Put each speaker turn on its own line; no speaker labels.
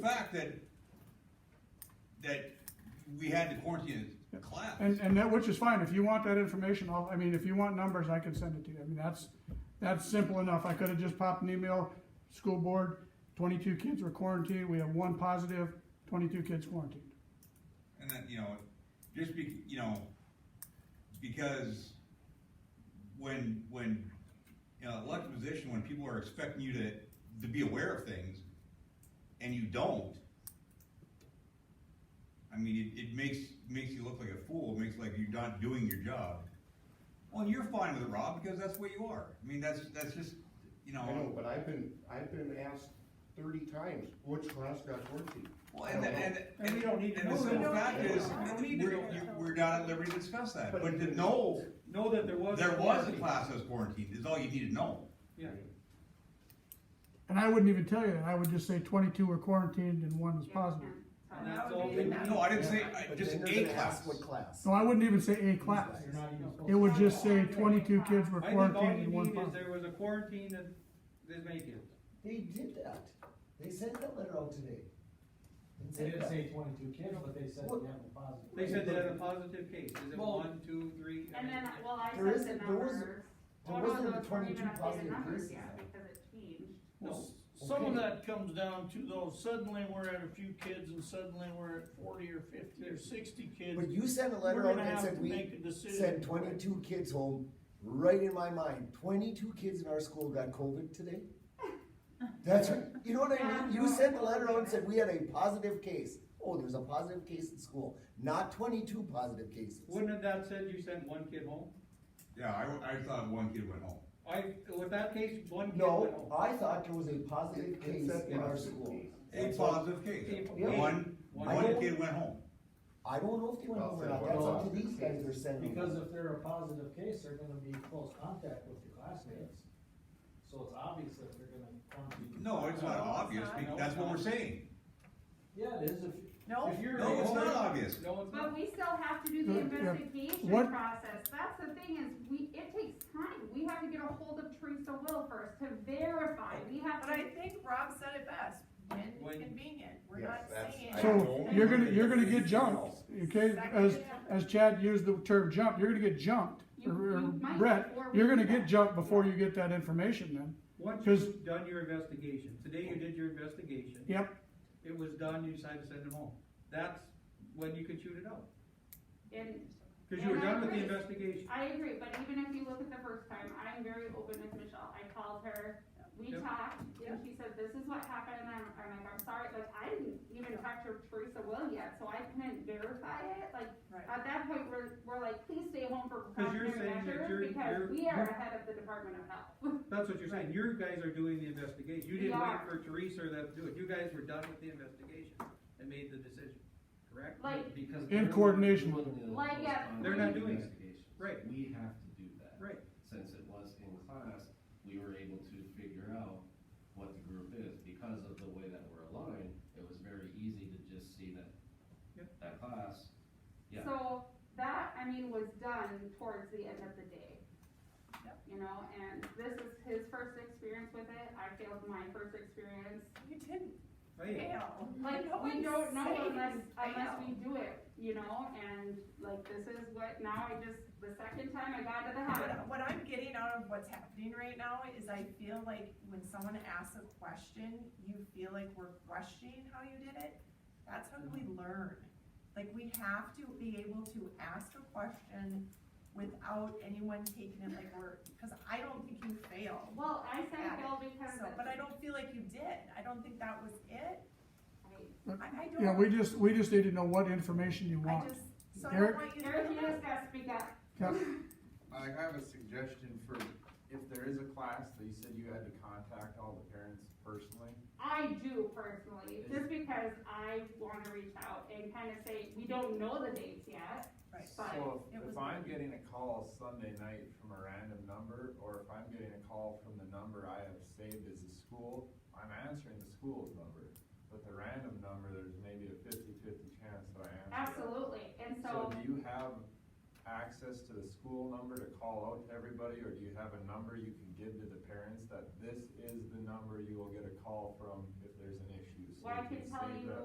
fact that, that we had to quarantine his class.
And, and that, which is fine, if you want that information, I'll, I mean, if you want numbers, I can send it to you, I mean, that's, that's simple enough, I could've just popped an email, school board, twenty-two kids were quarantined, we have one positive, twenty-two kids quarantined.
And that, you know, just be, you know, because when, when, you know, elected position, when people are expecting you to, to be aware of things, and you don't, I mean, it, it makes, makes you look like a fool, It makes like you're not doing your job. Well, and you're fine with it, Rob, because that's what you are, I mean, that's, that's just, you
I
Um,
know,
know,
but I've been, I've been asked thirty times, which class got quarantined?
well, and, the- and,
And we don't need to
and the
know
simple
that.
fact is,
We don't need to
we're,
know
you-
that.
we're not at liberty to discuss that,
But-
but to know
Know that there was.
There was a
quarantine.
class that was quarantined, is all you need to know.
Yeah,
And I wouldn't even tell you that, I would just say twenty-two were quarantined and one was positive.
and that's all
That
they
would be
need.
No, I didn't say, I-
But
just
then
a
they're gonna
class.
ask what class.
No, I wouldn't even say a class,
You're not even supposed
it
to-
would just say twenty-two kids were
I think all
quarantined
you
and one
need is
positive.
there was a quarantine and there's many kids.
They did that. They sent that letter out today. They
They
said
didn't
that.
say twenty-two kids, but they said they have a positive.
They said they had a positive case, is it
Well-
one, two, three? I
And then,
mean,
well, I
There
sent the
isn't- there was-
numbers.
there
Well, no,
wasn't
those weren't
22
even updated
positive
numbers
cases.
yet Because it changed.
No,
Some
Okay.
of that comes down to though, suddenly we're at a few kids and suddenly we're at forty or fifty or sixty kids.
But you sent a letter
We're
out
gonna
and
have
said
to
we
make a decision.
sent twenty-two kids home, right in my mind, twenty-two kids in our school got COVID today? That's, what- you know what I mean, you sent a letter out and said we had a positive case, oh, there's a positive case in school, not twenty-two positive cases.
wouldn't have that said you sent one kid home?
Yeah, I, I thought one kid went home.
I, with that case, one kid went
No,
home.
I thought there was a positive
It
case
said
in our
positive
school.
case.
A
That's what-
positive case,
Yeah.
one,
One.
one kid went home.
I don't know if they went home or not,
Well,
that's up to
positive
these guys
case.
they're sending.
Because if they're a positive case, they're gonna be in close contact with your classmates. So it's obvious that they're gonna contact.
No, it's not obvious, because that's what we're saying.
Yeah, it is if.
No.
if you're-
No, it's not obvious.
No, it's
But
not.
we still have to do the
Yeah.
investigation
What-
process, that's the thing is, we, it takes time, we have to get a hold of Teresa Will first to verify, we have
But
to.
I think Rob said it best,
When-
when convenient, we're
Yes,
not
that's-
saying.
I
So, you're gonna, you're gonna get jumped, okay, as,
Exactly.
as Chad used the term jump, you're gonna get jumped.
You-
Or or
you might
Brett,
before we
you're
do
gonna get
that.
jumped before you get that information then.
Once
'Cause-
you've done your investigation, today you did your investigation.
Yep,
It was done, you decided to send him home. That's when you could shoot it out,
And
cause you were
And I
done with the
agree.
investigation.
I agree, but even if you look at the first time, I'm very open with Michelle, I called her, we
Yep.
talked, and she said, this is what happened, and I'm, I'm like, I'm sorry, like, I didn't even talk to Teresa Will yet, so I couldn't verify it, like,
Right.
at that point, we're, we're like, please stay home for
'Cause you're
precautionary
saying that you're-
measures, because
you're-
we are
you're-
ahead of the Department of Health.
That's what you're saying, you guys are doing the investigation, you
We
didn't wait
are.
for Teresa or that to do it, you guys were done with the investigation and made the decision, correct?
Like-
Because.
In
they're-
coordination with-
Doing the
Like, yeah,
close
They're not
contact
doing it.
investigations.
Right.
We have to do that.
Right,
Since it was in class, we were able to figure out what the group is. Because of the way that we're aligned, it was very easy to just see that,
Yep.
that class, yeah.
So, that, I mean, was done towards the end of the day. You know, and this is his first experience with it, I failed my first experience,
You didn't
oh.
right,
fail.
Like,
No
we
one's
don't know
saying
unless,
you
unless we
failed.
do it, you know, and like, this is what, now I just, the second time I got to the habit.
What what I'm getting out of what's happening right now is I feel like when someone asks a question, you feel like we're questioning how you did it. That's how we
Mm-hmm.
learn. Like, we have to be able to ask a question without anyone taking it like we're, because I don't think you failed.
Well, I said
Got it.
fail because.
So, but I don't feel like you did. I don't think that was it. I, I don't.
yeah, we just, we just need to know what information you
I
want.
just, so I don't want you to.
Eric, you
feel
just gotta speak up.
Yeah.
I I have a suggestion for, if there is a class that you said you had to contact all the parents personally.
I do personally, just because I wanna reach out and kinda say, we don't know the dates yet.
Right.
So
It
if- if
was-
I'm getting a call Sunday night from a random number, or if I'm getting a call from the number I have saved as a school, I'm answering the school's number. But the random number, there's maybe a fifty-fifty chance that I answer. it.
Absolutely, and
So do
so,
you have access to the school number to call out to everybody, or do you have a number you can give to the parents that this is the number you will get a call from if there's an issue? So
so
Well, I
we
can tell
save
you
that